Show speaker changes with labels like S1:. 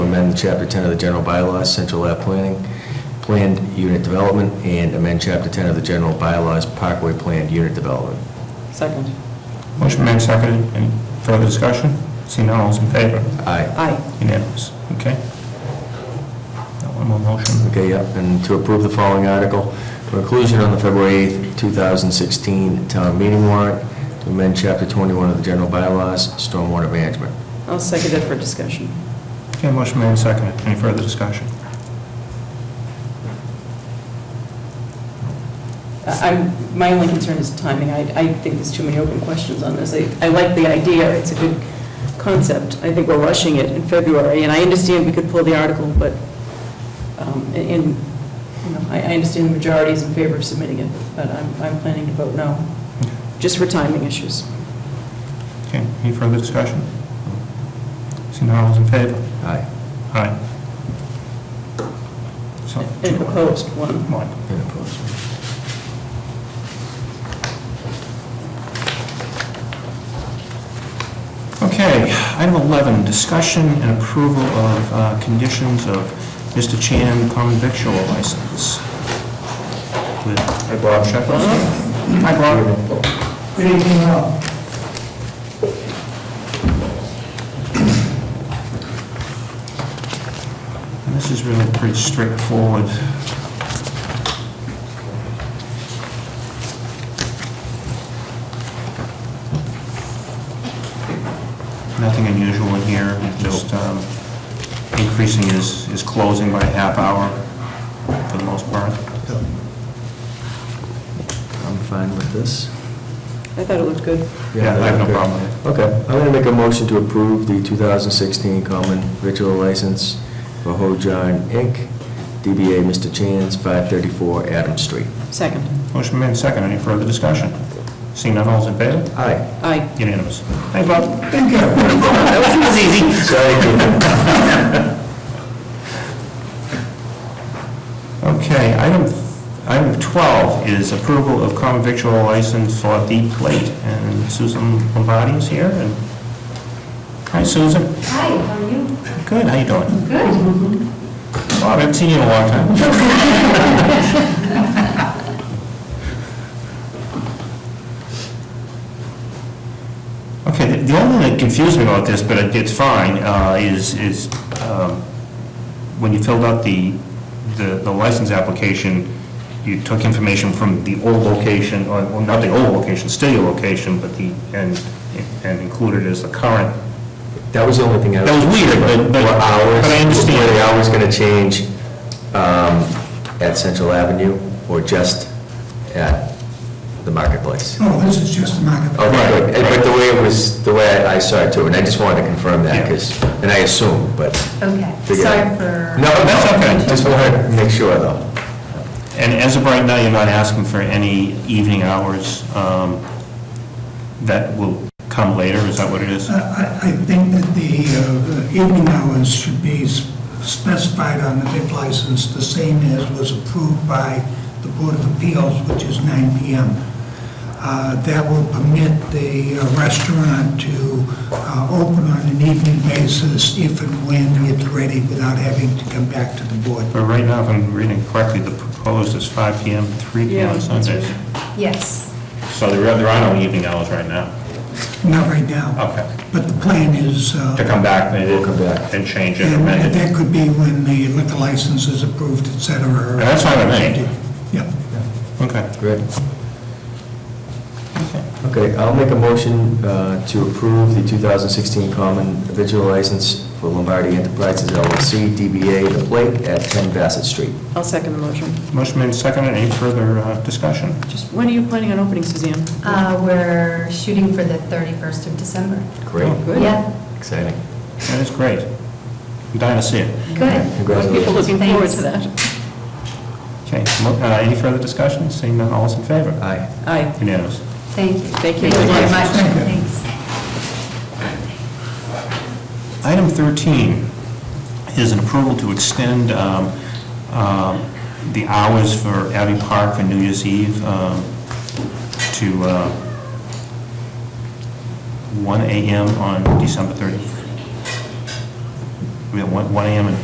S1: amend Chapter 10 of the general bylaws, central lab planning, planned unit development, and amend Chapter 10 of the general bylaws, parkway planned unit development.
S2: Second.
S3: Motion made, seconded. Any further discussion? Seeing none, all's in favor?
S1: Aye.
S2: Aye.
S3: Unanimous. Okay. That one more motion.
S1: Okay, yep, and to approve the following article, for inclusion on the February 8th, 2016 town meeting warrant, to amend Chapter 21 of the general bylaws, stormwater management.
S2: I'll second it for discussion.
S3: Okay, motion made, seconded. Any further discussion?
S2: I- I'm, my only concern is timing. I, I think there's too many open questions on this. I, I like the idea, it's a good concept. I think we're rushing it in February, and I understand we could pull the article, but, um, in, you know, I, I understand the majority is in favor of submitting it, but I'm, I'm planning to vote no, just for timing issues.
S3: Okay, any further discussion? Seeing none, all's in favor?
S1: Aye.
S3: Aye. So,
S2: And opposed, one.
S3: One.
S1: And opposed.
S3: Okay, item 11, discussion and approval of uh, conditions of Mr. Chan common victual license. With- Hi, Bob Shekels. Hi, Bob.
S4: Good evening, all.
S3: And This is really pretty straightforward. Nothing unusual in here, just um, increasing his, his closing by a half hour for the most part.
S1: I'm fine with this.
S2: I thought it looked good.
S3: Yeah, I have no problem with it.
S1: Okay, I'm going to make a motion to approve the 2016 common ritual license for Hojarn Inc., DBA Mr. Chan's, 534 Adams Street.
S2: Second.
S3: Motion made second. Any further discussion? Seeing none, all's in favor?
S1: Aye.
S2: Aye.
S3: Unanimous. Thanks, Bob. Thank you. Okay, item, item 12 is approval of common victual license for The Plate, and Susan Lombardi is here, and, hi, Susan.
S5: Hi, how are you?
S3: Good, how you doing?
S5: Good.
S3: Bob, I haven't seen you in a long time. Okay, the- the only thing that confused me about this, but it- it's fine, uh, is, is um, when you filled out the, the the license application, you took information from the old location, or well, not the old location, still your location, but the, and, and included as the current.
S1: That was the only thing I...
S3: That was weird, but- but-
S1: Were hours-
S3: but I understand.
S1: Were the hours going to change um, at Central Avenue or just at the marketplace?
S4: No, this is just a market.
S1: Okay, good. And- But the way it was, the way I saw it too, and I just wanted to confirm that,
S3: Yeah.
S1: because, and I assume, but...
S5: Okay,
S1: Figure it
S5: sorry
S1: out.
S5: for.
S1: No,
S3: that's okay.
S1: Just wanted to make sure, though.
S3: And as of right now, you're not asking for any evening hours um, that will come later, is that what it is?
S4: I, I- I think that the uh, the evening hours should be s- specified on the big license, the same as was approved by the Board of Appeals, which is 9 PM. Uh, That will permit the uh, restaurant to uh, open on an evening basis if and when it's ready without having to come back to the board.
S3: But right now, if I'm reading correctly, the proposed is 5 PM, to 3 PM
S2: Yeah,
S3: on
S2: that's
S3: Sundays.
S5: Yes,
S3: So there are there are no evening hours right now.
S4: Not right now,
S3: Okay.
S4: but the plan is... uh,
S3: To come back, they
S1: We'll come back.
S3: and change it,
S4: And
S3: amend it.
S4: that could be when the liquor license is approved, et cetera.
S3: Yeah, that's fine with me.
S4: Yeah.
S3: Okay.
S1: Great. Okay, I'll make a motion uh, to approve the 2016 common vigil license for Lombardi Enterprises LLC, DBA The Plate at 10 Bassett Street.
S2: I'll second the motion.
S3: Motion made second, any further uh, discussion?
S2: Just, when are you planning on opening, Suzanne?
S5: uh, we're shooting for the 31st of December.
S1: Great,
S2: Good.
S5: Yeah,
S1: exciting.
S3: That is great. I'm dying to see it.
S5: good.
S2: People
S1: Congratulations.
S2: looking forward to that.
S5: Thanks.
S3: Okay, mo- uh, any further discussion? Seeing none, all's in favor?
S1: Aye.
S2: Aye.
S3: Unanimous.
S5: Thank you.
S2: Thank you.
S5: very much, thanks.
S3: Item 13 is an approval to extend um, um, the hours for Abbey Park for New Year's Eve um, to uh, 1 AM on December 30th. I mean, 1 1 AM and